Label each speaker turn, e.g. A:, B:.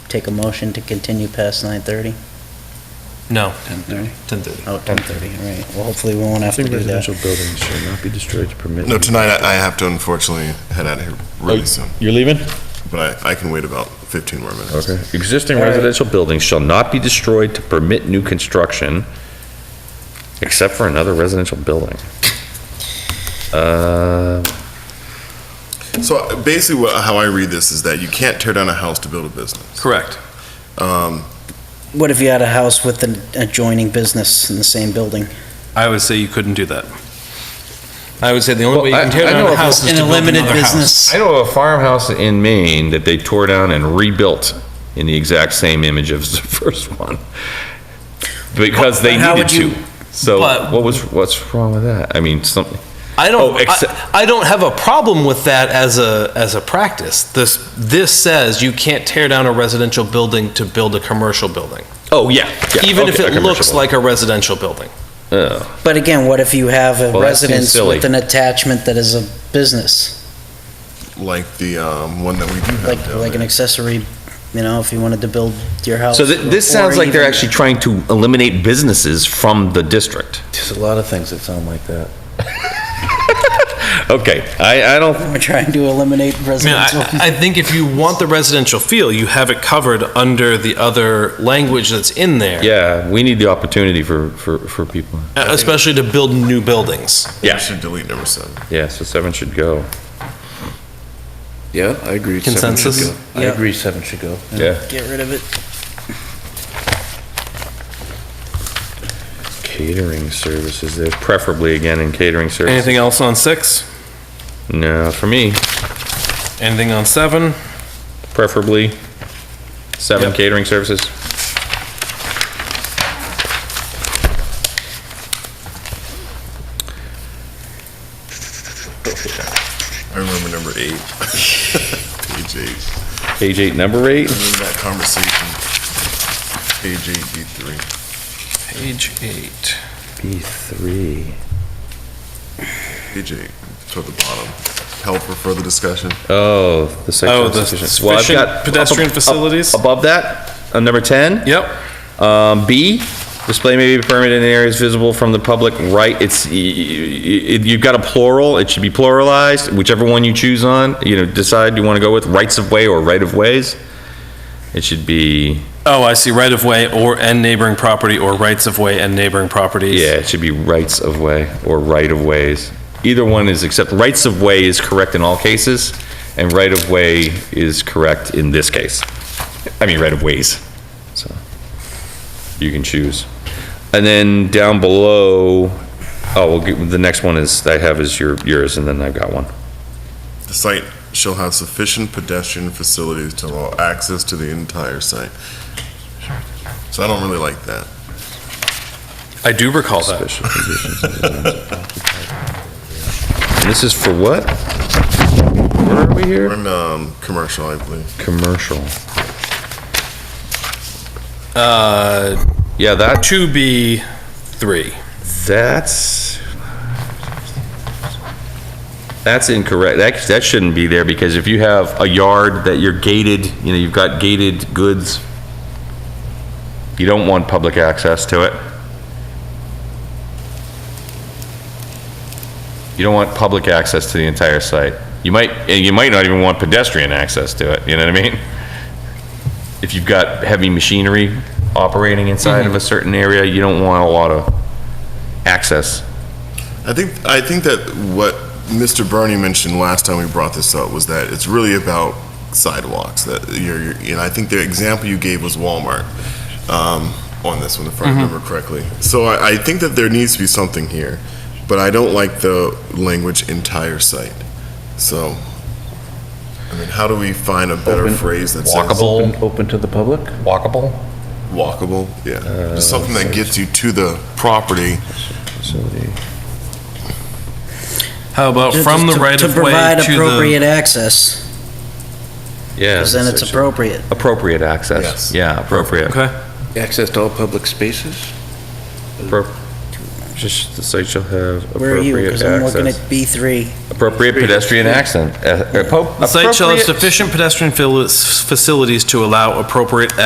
A: take a motion to continue past 9:30?
B: No,
A: 10:30.
B: 10:30.
A: Oh, 10:30, all right. Well, hopefully we won't have to
C: Housing
A: do that.
C: residential buildings shall not be destroyed to permit.
D: No, tonight I I have to unfortunately head out of here really soon,
C: You're leaving?
D: but I, I can wait about 15 more minutes.
C: Okay.
E: Existing
C: All right.
E: residential buildings shall not be destroyed to permit new construction, except for another residential building. Uh,
D: So uh, basically, what- how I read this is that you can't tear down a house to build a business.
B: Correct.
D: Um,
A: What if you had a house with an adjoining business in the same building?
B: I would say you couldn't do that. I would say the only
E: Well,
B: way you
E: I-
B: can tear
E: I know
B: down a
E: of-
B: house is
A: In
B: to
A: a
B: build
A: limited
B: another house.
A: business?
E: I know of a farmhouse in Maine that they tore down and rebuilt in the exact same image as the first one, because they
A: But how would
E: needed
A: you-
E: to. So
B: but-
E: what was, what's wrong with that? I mean, something,
B: I don't.
E: Oh, except-
B: I, I don't have a problem with that as a as a practice. This this says you can't tear down a residential building to build a commercial building,
E: oh, yeah. yeah,
B: even if
E: okay, a
B: it
E: commercial
B: looks
E: building.
B: like a residential building.
E: Oh,
A: But again, what if you have a
E: Well, that seems
A: residence
E: silly.
A: with an attachment that is a business?
D: Like the um, one that we do
A: Like,
D: have down
A: like an
D: there.
A: accessory, you know, if you wanted to build your house.
E: So thi- this
A: or
E: sounds like they're
A: even-
E: actually trying to eliminate businesses from the district.
C: There's a lot of things that sound like that.
E: Okay, I, I don't,
A: We're trying to eliminate
B: I mean,
A: residential.
B: I, I think if you want the residential feel, you have it covered under the other language that's in there,
E: Yeah, we need the opportunity for, for, for people.
B: especially to build new buildings.
E: Yeah.
D: We should delete number seven.
E: Yeah, so seven should go.
C: Yeah, I
B: seven
C: agree.
B: should Consensus? go.
C: I
A: Yeah.
C: agree seven should go.
E: Yeah.
A: Get rid of it.
E: Catering services, there, preferably again in catering services.
B: Anything else on six?
E: No, for me,
B: Anything on seven?
E: preferably seven
B: Yep.
E: catering services.
D: I remember number eight. Page eight.
E: Page eight, number eight,
D: I remember that conversation. Page eight, B three.
B: Page eight.
C: B three.
D: Page eight, toward the bottom. Help for further discussion.
E: oh, the
B: Oh,
E: sexual
B: the
E: sufficient. Well, I've
B: sufficient
E: got up-
B: pedestrian
E: up-
B: facilities?
E: Above that, uh, number 10.
B: Yep.
E: Um, B, display may be permitted in areas visible from the public, right, it's, y- y- y- you've got a plural, it should be pluralized, whichever one you choose on, you know, decide you want to go with, rights of way or right of ways. It should be,
B: Oh, I see. Right of way or and neighboring property or rights of way and neighboring properties.
E: yeah, it should be rights of way or right of ways. Either one is, except rights of way is correct in all cases, and right of way is correct in this case. I mean, right of ways, so, you can choose. And then down below, oh, well, g- the next one is, I have is your, yours, and then I've got one.
D: The site shall have sufficient pedestrian facilities to allow access to the entire site. So I don't really like that.
B: I do recall that.
E: Special conditions of the zones occupied. And This is for what? Where are we
D: We're
E: here?
D: in, um, commercial, I believe.
E: Commercial.
B: Uh,
E: Yeah, that,
B: to be three.
E: that's, that's incorrect. That, that shouldn't be there, because if you have a yard that you're gated, you know, you've got gated goods, you don't want public access to it. You don't want public access to the entire site. You might, and you might not even want pedestrian access to it, you know what I mean? If you've got heavy machinery operating inside of a certain area, you don't want a lot of access.
D: I think, I think that what Mr. Bernie mentioned last time we brought this up was that it's really about sidewalks, that you're, you're- and I think the example you gave was Walmart, um, on this one, if I remember correctly. So I, I think that there needs to be something here, but I don't like the language entire site. So, I mean, how do we find a better
C: Open,
D: phrase that says?
E: Walkable,
C: Open, open to the public?
E: walkable?
D: Walkable, yeah. Just something that gets you to the property.
C: Facility.
B: How about from the
A: To-
B: right of
A: To
B: way
A: provide
B: to
A: appropriate
B: the?
A: access,
E: Yeah.
A: 'cause then it's appropriate.
E: Appropriate
D: Yes.
E: access. Yeah, appropriate.
B: Okay.
C: Access to all public spaces?
E: Appro- Just, the site shall have
A: Where are you?
E: appropriate
A: Because I'm looking at
E: access.
A: B3.
E: Appropriate pedestrian accent. uh, uh, po-
B: The site shall have
E: appropriate-
B: sufficient pedestrian fili- facilities to allow appropriate